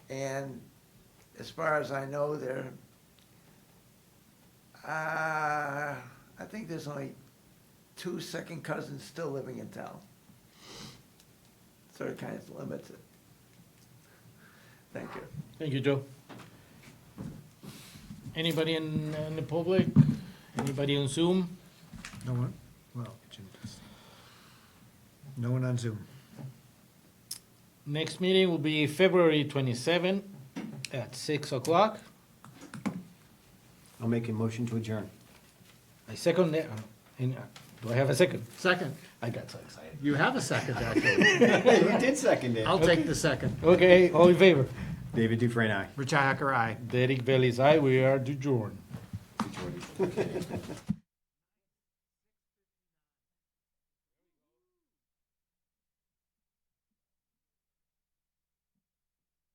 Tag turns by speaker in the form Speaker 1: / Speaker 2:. Speaker 1: And as far as I know, there, uh, I think there's only two second cousins still living in town. So it kind of limits it. Thank you.
Speaker 2: Thank you, Joe. Anybody in, in the public? Anybody on Zoom?
Speaker 3: No one? Well, Jim does. No one on Zoom.
Speaker 2: Next meeting will be February twenty-seven at six o'clock.
Speaker 4: I'll make a motion to adjourn.
Speaker 2: I second that, uh, in, uh, do I have a second?
Speaker 5: Second.
Speaker 2: I got so excited.
Speaker 5: You have a second, actually.
Speaker 4: Hey, you did second it.
Speaker 5: I'll take the second.
Speaker 2: Okay, all in favor?
Speaker 4: David Dufresne, aye.
Speaker 5: Richi Hacker, aye.
Speaker 2: Derek Bailey's aye, we are adjourned.